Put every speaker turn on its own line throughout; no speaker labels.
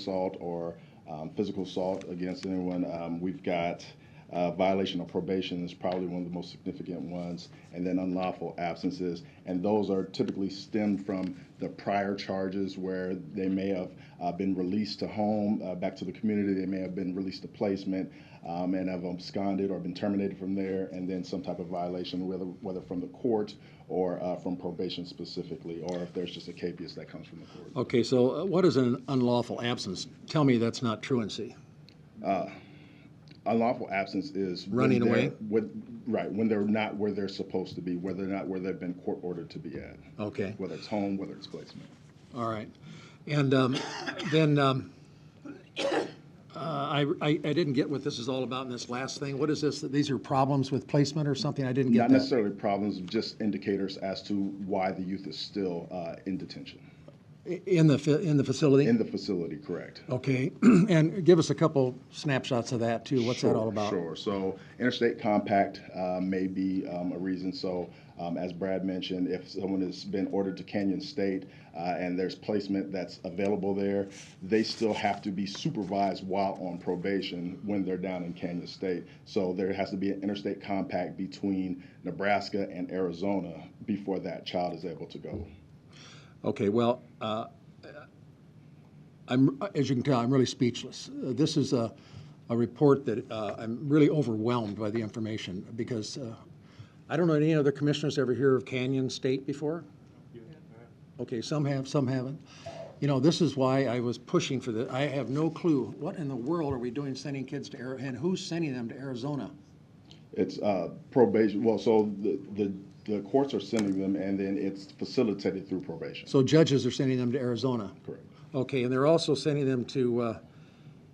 assault or um, physical assault against anyone. Um, We've got uh, violation of probation is probably one of the most significant ones, and then unlawful absences. And those are typically stemmed from the prior charges where they may have uh, been released to home, uh, back to the community. They may have been released to placement um, and have absconded or been terminated from there, and then some type of violation, whether, whether from the court or uh, from probation specifically, or if there's just a capias that comes from the court.
Okay, so uh, what is an unlawful absence? Tell me that's not truancy.
unlawful absence is when
Running
they're-
away?
When, right, when they're not where they're supposed to be, whether or not where they've been court ordered to be at,
Okay,
whether it's home, whether it's placement.
all right. And um, then, um, uh, I, I I didn't get what this is all about in this last thing. What is this? that These are problems with placement or something? I didn't get
Not
that.
necessarily problems, just indicators as to why the youth is still uh, in detention
I- In the, fa- in the facility?
in the facility. Correct.
Okay, and give us a couple snapshots of that too. What's that all
Sure,
about?
Sure. So interstate compact uh, may be um, a reason. So um, as Brad mentioned, if someone has been ordered to Canyon State uh, and there's placement that's available there, they still have to be supervised while on probation when they're down in Canyon State. So there has to be an interstate compact between Nebraska and Arizona before that child is able to go.
Okay, well, uh, I'm, as you can tell, I'm really speechless. Uh, This is a, a report that uh, I'm really overwhelmed by the information because uh, I don't know any other commissioners ever hear of Canyon State before? Okay, some have, some haven't. You know, this is why I was pushing for the, I have no clue. What in the world are we doing sending kids to, Ari- and who's sending them to Arizona?
It's uh, probation. Well, so the, the the courts are sending them, and then it's facilitated through probation.
So judges are sending them to Arizona?
Correct.
Okay, and they're also sending them to uh,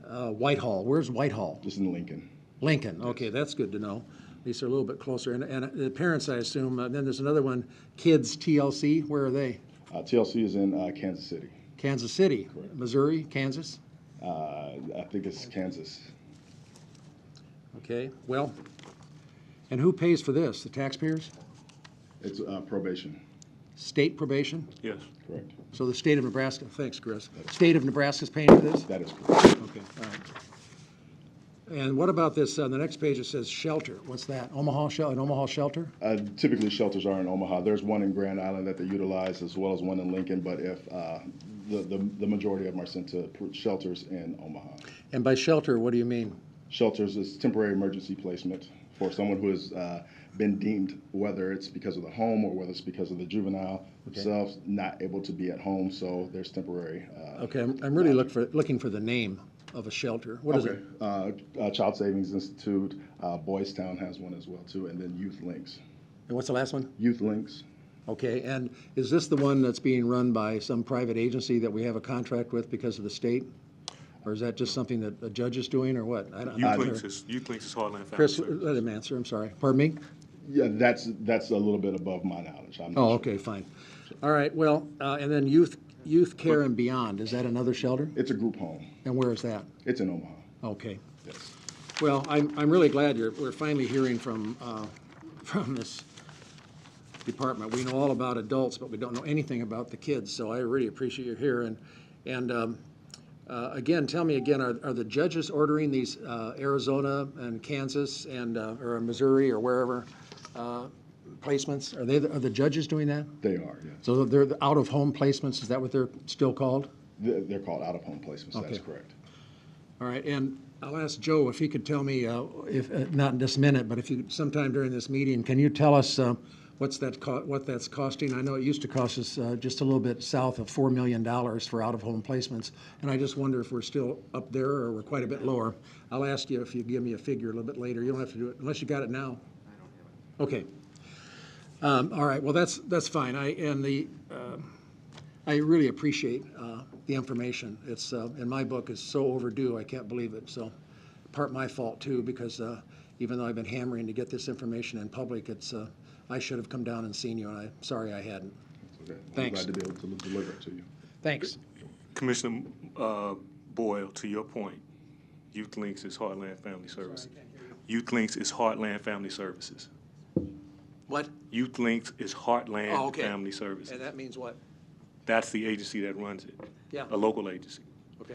uh, Whitehall. Where's Whitehall?
Just in Lincoln.
Lincoln, okay, that's good to know. At least they're a little bit closer. And, and the parents, I assume, and then there's another one, Kids TLC, where are they?
Uh, TLC is in uh, Kansas City.
Kansas City, Missouri, Kansas?
Uh, I think it's Kansas.
Okay, well, and who pays for this? The taxpayers?
It's uh, probation,
State probation?
Yes.
correct?
So the state of Nebraska, thanks, Chris. State of Nebraska's paying for this?
That is correct.
Okay, all right. And what about this, on the next page it says shelter, what's that? Omaha shel, an Omaha shelter?
Uh, typically, shelters are in Omaha. There's one in Grand Island that they utilize, as well as one in Lincoln. But if uh, the, the the majority of them are sent to pr- shelters in Omaha.
And by shelter, what do you mean?
Shelters is temporary emergency placement for someone who has uh, been deemed, whether it's because of the home or whether it's because of the juvenile themselves, not able to be at home. So there's temporary. Uh,
Okay, I'm, I'm really look for, looking for the name of a shelter. What is it?
Uh, uh, Child Savings Institute, uh, Boys Town has one as well too, and then Youth Links.
And what's the last one?
Youth Links.
Okay, and is this the one that's being run by some private agency that we have a contract with because of the state? Or is that just something that a judge is doing, or what? I don't- I'm not
Youth Links
sure.
is, Youth Links is Heartland Family
Chris, uh,
Services.
let him answer, I'm sorry. Pardon me?
Yeah, that's that's a little bit above my knowledge. I'm not
Oh,
sure.
okay, fine. All right, well, uh, and then youth, youth care and beyond, is that another shelter?
It's a group home.
And where is that?
It's in Omaha.
Okay.
Yes.
Well, I'm, I'm really glad you're, we're finally hearing from, uh, from this department. We know all about adults, but we don't know anything about the kids, so I really appreciate you here. And, and um, uh, again, tell me again, are, are the judges ordering these uh, Arizona and Kansas and, uh, or Missouri or wherever uh, placements? Are they, the- are the judges doing that?
They are. Yes.
So they're the out-of-home placements, is that what they're still called?
They're, they're called out of home placements. That's
Okay.
correct.
All right, and I'll ask Joe if he could tell me, uh, if, uh, not in this minute, but if you, sometime during this meeting, can you tell us uh, what's that, co- what that's costing? I know it used to cost us uh, just a little bit south of $4 million for out-of-home placements, and I just wonder if we're still up there or we're quite a bit lower. I'll ask you if you give me a figure a little bit later. You don't have to do it, unless you got it now. I don't have it. Okay. Um, All right, well, that's, that's fine. I, and the, I really appreciate uh, the information. It's, uh, in my book, is so overdue, I can't believe it. So part my fault too, because uh, even though I've been hammering to get this information in public, it's, uh, I should have come down and seen you, and I'm sorry I hadn't.
Okay. I'm
Thanks.
Glad to be able to deliver it to you.
Thanks.
Commissioner uh, Boyle, to your point, Youth Links is Heartland Family Services. Youth Links is Heartland Family Services.
What?
Youth Links is
Oh,
Heartland
okay.
Family
And
Services.
that means what?
That's the agency that runs it.
Yeah.
A local agency.
Okay.